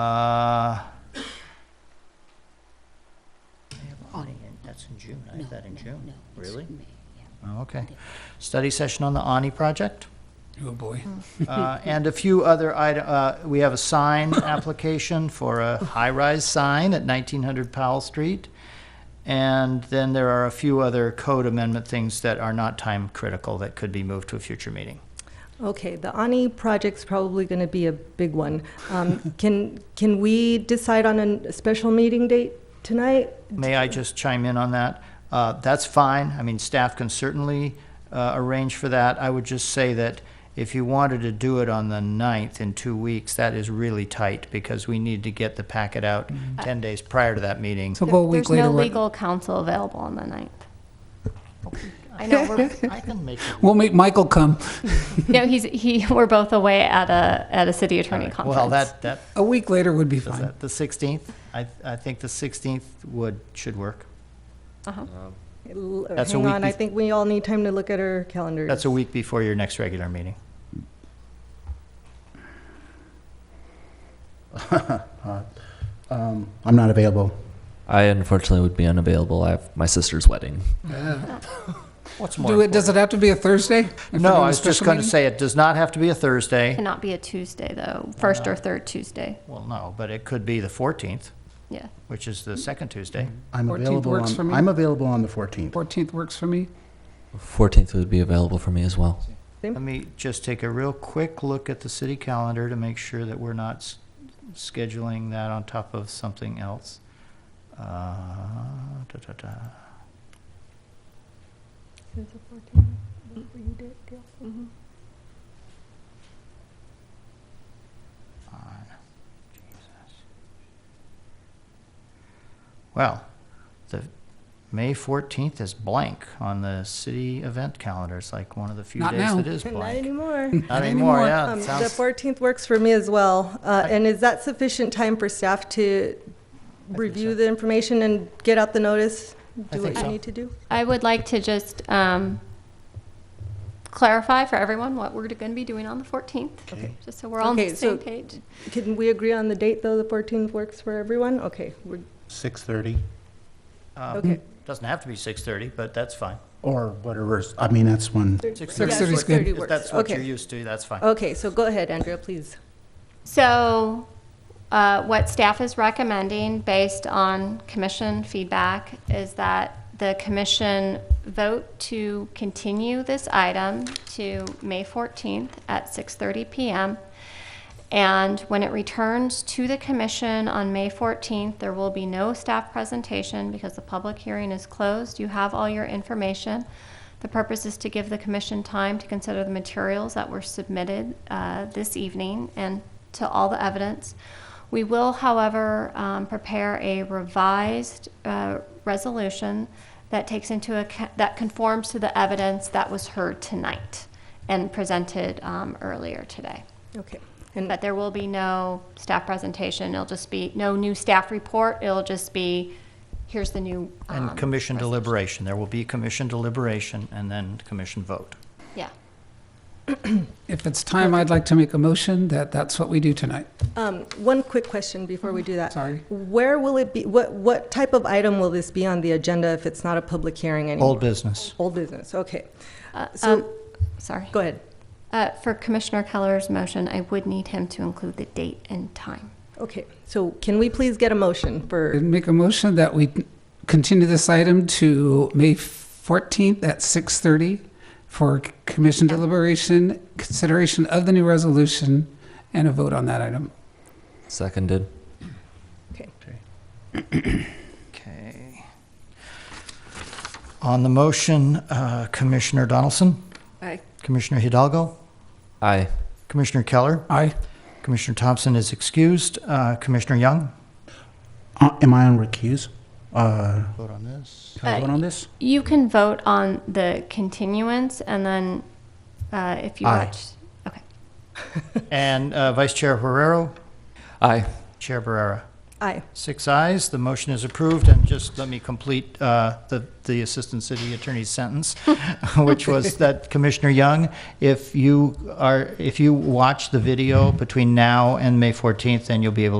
Uh, I have audit, in- that's in June, I No, have that in no, June. no, it's Really? May, yeah. oh, okay. Study session on the Ani project. Oh, boy. Hmm. Uh, And a few other item, uh, we have a sign application for a high-rise sign at 1900 Powell Street. And then there are a few other code amendment things that are not time critical that could be moved to a future meeting. Okay, the Ani project's probably going to be a big one. Um, Can, can we decide on a n- special meeting date tonight? May I just chime in on that? Uh, That's fine. I mean, staff can certainly uh, arrange for that. I would just say that if you wanted to do it on the 9th in two weeks, that is really tight because we need to get the packet out 10 days prior to that meeting. So go a week There's later. no what- legal counsel available on the ninth. I know we're, I can make it. We'll make Michael come. no, he's, he, we're both away at a, at a city attorney conference. Well, that, that, A week later would be does fine. that, the 16th? I, I think the 16th would, should work. L- That's a Hang week on, I bef- think we all need time to look at our calendars. That's a week before your next regular meeting. Um, I'm not available. I unfortunately would be unavailable. I have my sister's wedding. What's more Do it, does it have to be a Thursday? If we're No, doing a I was just special going to meeting? say, it does not have to be a Thursday. Cannot be a Tuesday though, first or third Tuesday, Well, no, but it could be the 14th, yeah. which is the second Tuesday. I'm 14th available works for on, me. I'm available on the 14th. 14th works for me. 14th would be available for me as well. Let me just take a real quick look at the city calendar to make sure that we're not s- scheduling that on top of something else. Uh, da, da, da. on. Jesus. Well, the May 14th is blank on the city event calendar. It's like one of the few Not days now. that is Not blank. anymore. Not anymore, anymore. yeah. Um, it The sounds- 14th works for me as well. Uh, And is that sufficient time for staff to review so. the information and get out the notice? I Do think what you so. need to do? I would like to just, um, clarify for everyone what we're gonna be doing on the fourteenth, Okay. just so we're all on Okay, the same so- page. Can we agree on the date, though? The 14th works for everyone? Okay, we're, 6:30 um, okay. Doesn't have to be 6:30, but that's fine. or whatever's, I mean, that's when, Six Yeah, thirty is 6:30 good. If works. that's what Okay. you're used to, that's fine. Okay, so go ahead, Andrea, please. So, uh, what staff is recommending based on commission feedback is that the commission vote to continue this item to May 14th at 6:30 PM. And when it returns to the commission on May 14th, there will be no staff presentation because the public hearing is closed. You have all your information. The purpose is to give the commission time to consider the materials that were submitted uh, this evening and to all the evidence. We will, however, um, prepare a revised uh, resolution that takes into account, that conforms to the evidence that was heard tonight and presented um, earlier today. Okay. And But there will be no staff presentation. It'll just be, no new staff report. It'll just be, here's the new. And um, commission resolution. deliberation. There will be commission deliberation and then commission vote. Yeah. If it's time, I'd like to make a motion that that's what we do tonight. um, one quick question before we do that. Sorry. Where will it be, what, what type of item will this be on the agenda if it's not a public hearing anymore? Old business. Old business, okay. Uh, So, um, Sorry. go ahead. Uh, For Commissioner Keller's motion, I would need him to include the date and time. Okay, so can we please get a motion for, I'd make a motion that we continue this item to May 14th at 6:30 for commission deliberation, consideration of the new resolution, and a vote on that item. Seconded. Okay. On the motion, uh, Commissioner Donaldson? Aye. Commissioner Hidalgo? Aye. Commissioner Keller? Aye. Commissioner Thompson is excused. Uh, Commissioner Young? Uh, am I on recuse? Uh, Vote on this. Can I vote on this? You can vote on the continuance, and then uh, if you Aye. watch, okay. And uh, Vice Chair Herrero? Aye. Chair Barrera? aye, Six ayes, the motion is approved, and just let me complete uh, the the Assistant City Attorney's sentence, which was that Commissioner Young, if you are, if you watch the video between now and May 14th, then you'll be able to.